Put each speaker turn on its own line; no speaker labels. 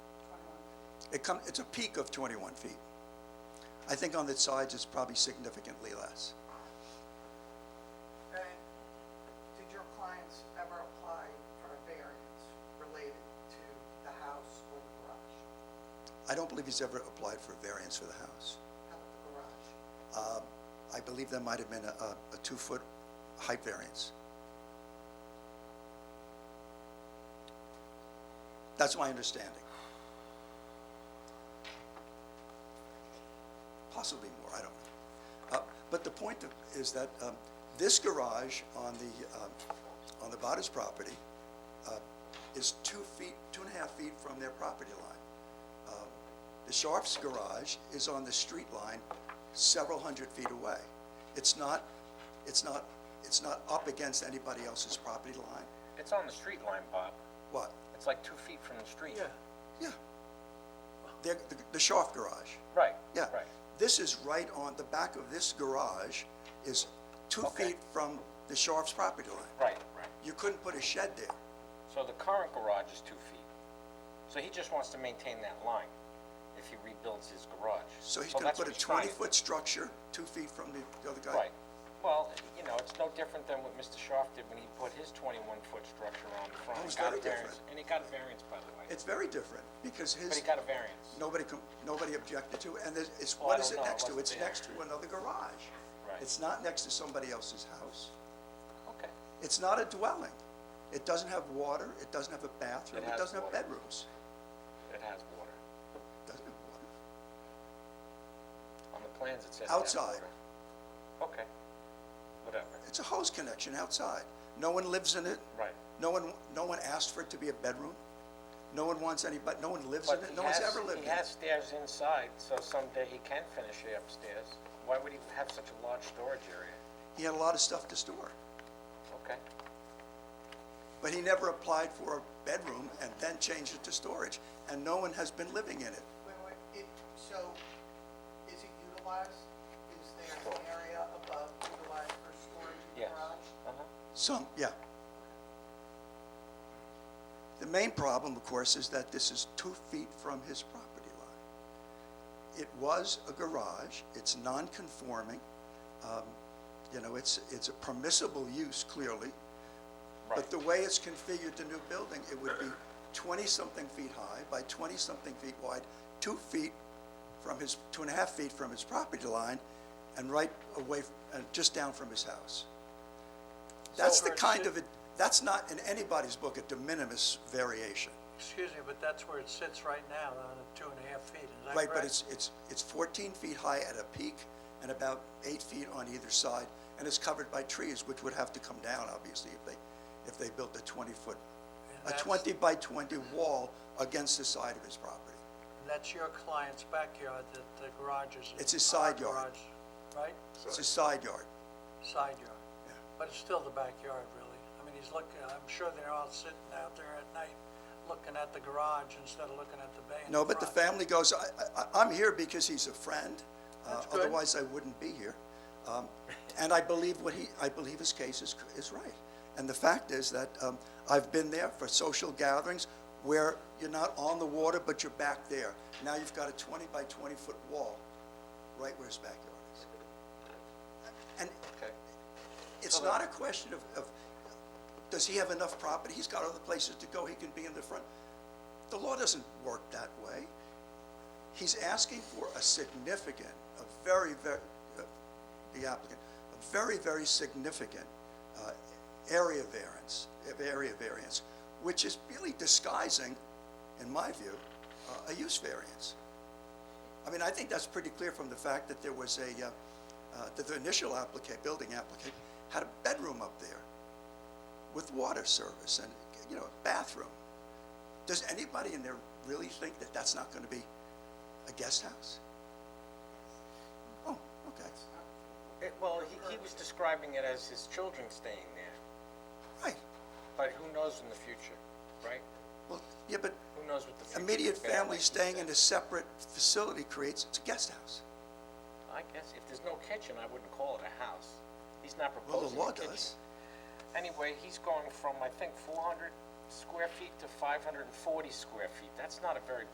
It come, it's a peak of 21 feet. I think on the sides, it's probably significantly less.
And did your clients ever apply for a variance related to the house or the garage?
I don't believe he's ever applied for a variance for the house.
How about the garage?
I believe there might have been a, a a two-foot height variance. That's my understanding. Possibly more, I don't know. Uh, But the point of- is that um, this garage on the, um, on the Bottas property uh, is two feet, two and a half feet from their property line. The Sharps garage is on the street line several hundred feet away. It's not, it's not, it's not up against anybody else's property line.
It's on the street line, Bob.
What?
It's like two feet from the street.
Yeah,
Yeah. The, the- the Sharp garage,
Right.
yeah.
Right.
This is right on, the back of this garage is two
Okay.
feet from the Sharps property line.
Right, right.
You couldn't put a shed there.
So the current garage is two feet. So he just wants to maintain that line if he rebuilds his garage.
So he's gonna
that's
put a
what he's trying to do.
twenty-foot structure, two feet from the the other guy.
Right. Well, you know, it's no different than what Mr. Schaaf did when he put his twenty-one foot structure on the front.
Oh, it's
He got
very
a variance-
different.
And he got a variance, by the way.
It's very different, because his.
But he got a variance,
Nobody, com- nobody objected to, it. and there's- it's,
Oh,
what
I
is it
don't know. It
next to?
wasn't
It's
there.
next to another garage.
Right.
It's not next to somebody else's house.
okay.
It's not a dwelling. It doesn't have water, it doesn't have a bathroom,
It
it
has
doesn't have
water.
bedrooms.
It has water.
It Doesn't have water.
On the plans, it says. it has
Outside.
water. Okay. Whatever.
It's a hose connection outside. No one lives in it.
Right.
No one, no one asked for it to be a bedroom. No one wants anybody, no one lives in
But
it,
he
no one's
has-
ever lived in
He
it.
has stairs inside, so someday he can finish it upstairs. Why would he have such a large storage area?
He had a lot of stuff to store,
Okay,
but he never applied for a bedroom and then changed it to storage, and no one has been living in it.
Wait, wait, it, so is it utilized? Is there an area above utilized for storage in the
yes.
garage?
Uh-huh.
Some, yeah. The main problem, of course, is that this is two feet from his property line. It was a garage, it's non-conforming, um, you know, it's, it's a permissible use clearly,
Right,
but the way it's configured, the new building, it would be twenty-something feet high by twenty-something feet wide, two feet from his, two and a half feet from his property line, and right away, f- and just down from his house. That's the
So-
kind of, a that's not in anybody's book a de minimis variation.
excuse me, but that's where it sits right now, on the two and a half feet, is that correct?
Right, but it's, it's, it's fourteen feet high at a peak and about eight feet on either side, and it's covered by trees, which would have to come down, obviously, if they, if they built a twenty-foot, a
that's-
twenty by twenty wall against the side of his property.
That's your client's backyard, that the garage is.
It's his side
our
yard.
garage, Right?
It's his side yard.
Side yard. But it's still the backyard, really. I mean, he's looking, I'm sure they're all sitting out there at night, looking at the garage instead of looking at the bay in
No,
the
but the
front.
family goes, I, I, I'm here because he's a friend. uh,
That's good.
Otherwise, I wouldn't be here. Um, and I believe what he, I believe his case is, is right. And the fact is that, um, I've been there for social gatherings where you're not on the water, but you're back there. Now you've got a twenty by twenty foot wall right where his backyard is. And
okay.
it's not a question of, of, does he have enough property? He's got other places to go, he can be in the front. The law doesn't work that way. He's asking for a significant, a very, very, uh, the applicant, a very, very significant uh, area variance, uh, area variance, which is really disguising, in my view, uh, a use variance. I mean, I think that's pretty clear from the fact that there was a, uh, uh, that the initial applicant, building applicant, had a bedroom up there with water service and, you know, a bathroom. Does anybody in there really think that that's not going to be a guest house? Oh, okay,
It- Well, he, he was describing it as his children staying there,
right.
but who knows in the future, right?
Well, yeah, but
Who knows what the future.
immediate
will bear,
family
like you
staying
said.
in a separate facility creates, it's a guest house.
I guess if there's no kitchen, I wouldn't call it a house. He's not
Well,
proposing
the law
a kitchen.
does.
Anyway, he's going from, I think, four hundred square feet to five hundred and forty square feet. That's not a very